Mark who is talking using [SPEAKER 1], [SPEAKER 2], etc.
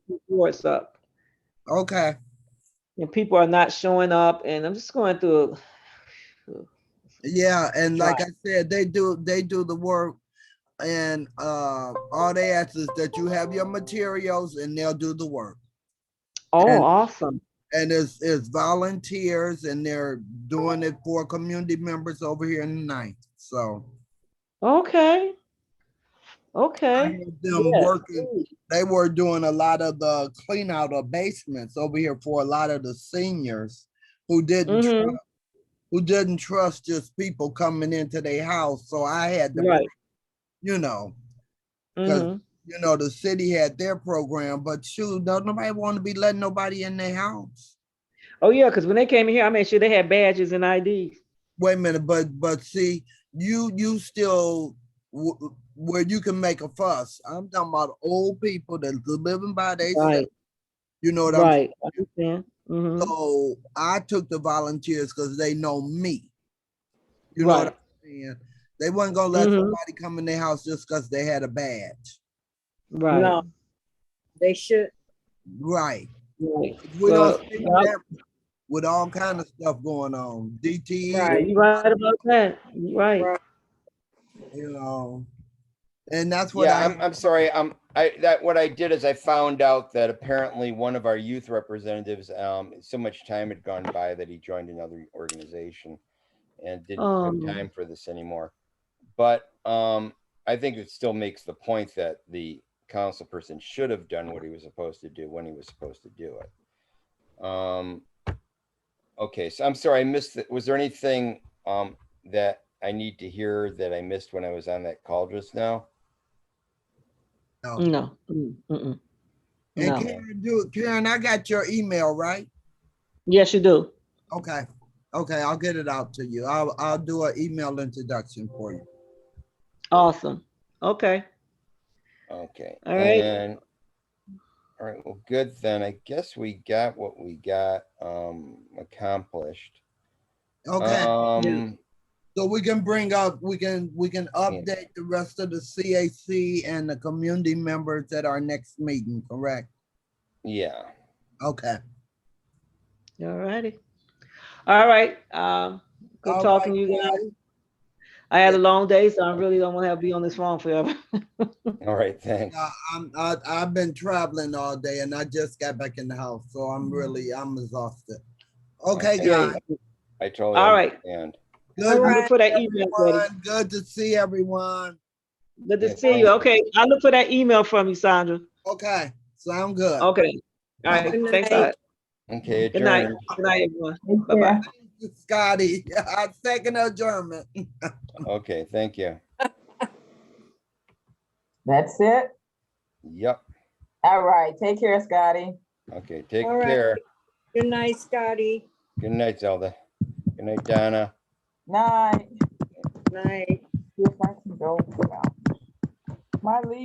[SPEAKER 1] reports up
[SPEAKER 2] Okay,
[SPEAKER 1] and people are not showing up and I'm just going through.
[SPEAKER 2] yeah, and like I said, they do, they do the work. And uh, all they ask is that you have your materials and they'll do the work.
[SPEAKER 1] Oh,
[SPEAKER 2] And-
[SPEAKER 1] awesome.
[SPEAKER 2] And it's, it's volunteers and they're doing it for community members over here in the ninth, so.
[SPEAKER 1] Okay.
[SPEAKER 2] I
[SPEAKER 1] Okay.
[SPEAKER 2] had Them
[SPEAKER 1] Yes.
[SPEAKER 2] working, they were doing a lot of the clean out of basements over here for a lot of the seniors who didn't,
[SPEAKER 1] Mhm.
[SPEAKER 2] trust- who didn't trust just people coming into their house, so I had to,
[SPEAKER 1] Right.
[SPEAKER 2] you know,
[SPEAKER 1] Mhm.
[SPEAKER 2] you know, the city had their program, but shoot, don't nobody want to be letting nobody in their house.
[SPEAKER 1] Oh, yeah, because when they came in here, I made sure they had badges and IDs.
[SPEAKER 2] Wait a minute, but, but see, you, you still, w- where you can make a fuss, I'm talking about old people that's living by they,
[SPEAKER 1] Right,
[SPEAKER 2] you know what I'm
[SPEAKER 1] right. I understand. Mhm.
[SPEAKER 2] So I took the volunteers because they know me. You know what
[SPEAKER 1] Right.
[SPEAKER 2] I'm saying? They wasn't gonna let
[SPEAKER 1] Mhm.
[SPEAKER 2] somebody come in their house just because they had a badge.
[SPEAKER 1] Right.
[SPEAKER 3] No, they should.
[SPEAKER 2] Right.
[SPEAKER 1] Right.
[SPEAKER 2] We
[SPEAKER 1] Well,
[SPEAKER 2] don't see
[SPEAKER 1] yeah.
[SPEAKER 2] that with all kind of stuff going on. E, DTE,
[SPEAKER 1] Yeah,
[SPEAKER 3] Right.
[SPEAKER 1] You right about that. You right.
[SPEAKER 3] Right.
[SPEAKER 2] you know. And that's what
[SPEAKER 4] Yeah,
[SPEAKER 2] I
[SPEAKER 4] I'm, I'm sorry. Um, I, that, what I did is I found out that apparently one of our youth representatives, um, so much time had gone by that he joined another organization and didn't
[SPEAKER 1] Um.
[SPEAKER 4] have time for this anymore. But, um, I think it still makes the point that the council person should have done what he was supposed to do when he was supposed to do it. Um, okay, so I'm sorry, I missed, it. was there anything, um, that I need to hear that I missed when I was on that call just now?
[SPEAKER 2] know.
[SPEAKER 1] No. Mm, mm-mm.
[SPEAKER 2] And
[SPEAKER 1] No.
[SPEAKER 2] Karen, do Karen, I got your email, right?
[SPEAKER 1] Yes, you do.
[SPEAKER 2] Okay. Okay, I'll get it out to you. I'll I'll do an email introduction for you.
[SPEAKER 1] Awesome. Okay.
[SPEAKER 4] Okay.
[SPEAKER 1] All right.
[SPEAKER 4] and- All right, well, good then. I guess we got what we got um accomplished.
[SPEAKER 2] Okay.
[SPEAKER 4] Um,
[SPEAKER 2] So we can bring up, we can, we can update the rest of the CAC and the community members at our next meeting, correct?
[SPEAKER 4] yeah,
[SPEAKER 2] Okay.
[SPEAKER 1] All righty. All right. Um, good
[SPEAKER 2] All
[SPEAKER 1] talking to
[SPEAKER 2] right,
[SPEAKER 1] you guys.
[SPEAKER 2] guys.
[SPEAKER 1] I had a long day, so I really don't want to have to be on this phone forever.
[SPEAKER 4] all right, thanks.
[SPEAKER 2] Uh, I'm, I, I've been traveling all day and I just got back in the house, so I'm really, I'm exhausted. Okay,
[SPEAKER 4] Okay.
[SPEAKER 2] guys.
[SPEAKER 4] I totally
[SPEAKER 1] All right.
[SPEAKER 4] understand.
[SPEAKER 2] Good,
[SPEAKER 1] I'm looking
[SPEAKER 2] to
[SPEAKER 1] for
[SPEAKER 2] see
[SPEAKER 1] that email, buddy.
[SPEAKER 2] everyone. Good to see everyone.
[SPEAKER 1] Good to
[SPEAKER 4] Yeah,
[SPEAKER 1] see you. Okay, I'll look for that email from you, Sandra.
[SPEAKER 2] Okay, sound good.
[SPEAKER 1] Okay. All right,
[SPEAKER 3] Good
[SPEAKER 1] thanks. a
[SPEAKER 3] night.
[SPEAKER 1] lot.
[SPEAKER 4] Okay,
[SPEAKER 1] Good night.
[SPEAKER 4] adjourned.
[SPEAKER 1] Good night, everyone.
[SPEAKER 3] Yeah.
[SPEAKER 1] Bye-bye.
[SPEAKER 2] Scotty, I second adjournment.
[SPEAKER 4] Okay, thank you.
[SPEAKER 5] That's it.
[SPEAKER 4] Yep.
[SPEAKER 5] All right. Take care, Scotty.
[SPEAKER 4] Okay, take
[SPEAKER 3] All right.
[SPEAKER 4] care.
[SPEAKER 3] Good night, Scotty.
[SPEAKER 4] Good night, Zelda. Good night, Donna.
[SPEAKER 5] Night.
[SPEAKER 3] Night.
[SPEAKER 5] See if I can go. out. My leave.